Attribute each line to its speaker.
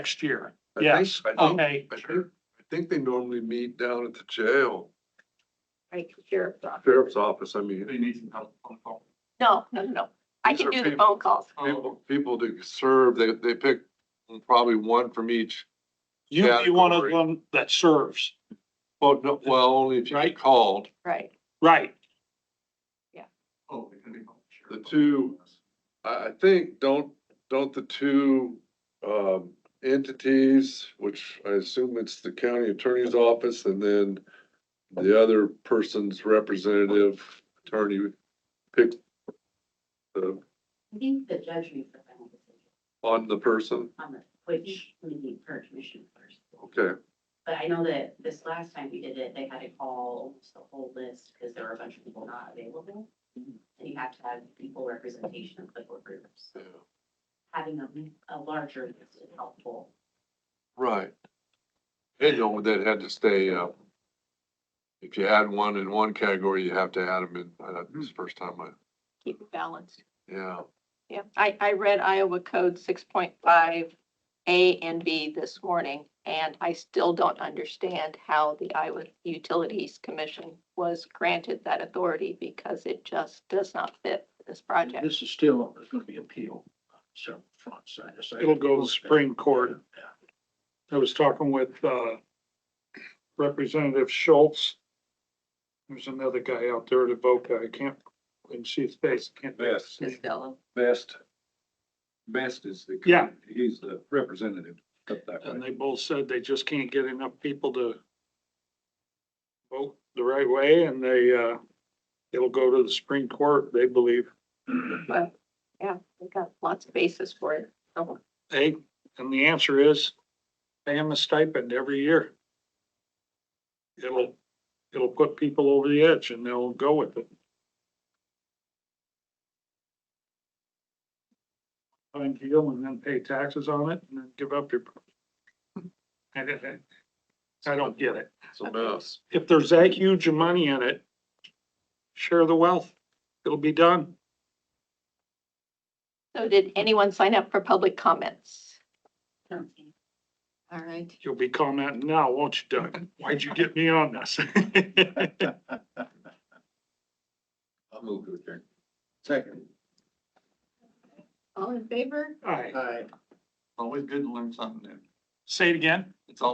Speaker 1: next year.
Speaker 2: I
Speaker 1: Yeah, Oh,
Speaker 2: think- I think-
Speaker 1: Okay,
Speaker 2: I think, I think they normally meet down at the jail,
Speaker 3: right, sheriff's office.
Speaker 2: sheriff's office, I mean.
Speaker 4: They need some help on call.
Speaker 3: No, no, no, I
Speaker 2: These
Speaker 3: can
Speaker 2: are
Speaker 3: do the
Speaker 2: people-
Speaker 3: phone calls.
Speaker 1: Oh.
Speaker 2: People, people to serve, they, they pick probably one from each,
Speaker 1: you'd be one of
Speaker 2: Category.
Speaker 1: them that serves,
Speaker 2: well, no, well, only if you get
Speaker 1: Right.
Speaker 2: called.
Speaker 3: Right,
Speaker 1: right?
Speaker 4: Oh, they can be helped.
Speaker 2: The two- I, I think, don't, don't the two, um, entities, which I assume it's the county attorney's office and then the other person's representative attorney pick the,
Speaker 5: I think the judge makes the final decision
Speaker 2: on the person,
Speaker 5: on the, which we need her commission first.
Speaker 2: okay.
Speaker 5: But I know that this last time we did it, they had to call almost the whole list because there were a bunch of people not available. And you have to have equal representation of the board groups.
Speaker 2: yeah.
Speaker 5: Having a, a larger list is helpful.
Speaker 2: Right. And you know, that had to stay, uh, if you had one in one category, you have to add them in, uh, this is the first time I,
Speaker 3: keep it balanced.
Speaker 2: yeah.
Speaker 3: Yeah, I, I read Iowa Code six point five A and B this morning, and I still don't understand how the Iowa Utilities Commission was granted that authority because it just does not fit this project.
Speaker 6: This is still, there's gonna be appeal on several fronts. I just-
Speaker 1: It'll go to the Supreme Court. I was talking with, uh, Representative Schultz. There's another guy out there at Boca, I can't, and see his face, I can't.
Speaker 7: Best,
Speaker 3: Costello.
Speaker 7: best, best is the.
Speaker 1: Yeah.
Speaker 7: He's the representative up that
Speaker 1: And
Speaker 7: way.
Speaker 1: they both said they just can't get enough people to vote the right way and they, uh, it'll go to the Supreme Court, they believe.
Speaker 3: Yeah, we got lots of basis for it. So,
Speaker 1: Hey, and the answer is pay them a stipend every year. It'll, it'll put people over the edge and they'll go with it. Find deal and then pay taxes on it and then give up your. I don't, I don't get it.
Speaker 2: It's a mess.
Speaker 1: If there's that huge of money in it, share the wealth. It'll be done.
Speaker 3: so did anyone sign up for public comments? All right.
Speaker 1: You'll be commenting now, won't you, Doug? Why'd you get me on this?
Speaker 7: I'll move to adjourn. Second.
Speaker 3: All in favor?
Speaker 1: All right.
Speaker 6: Aye.
Speaker 4: Always good to learn something new.
Speaker 1: Say it again.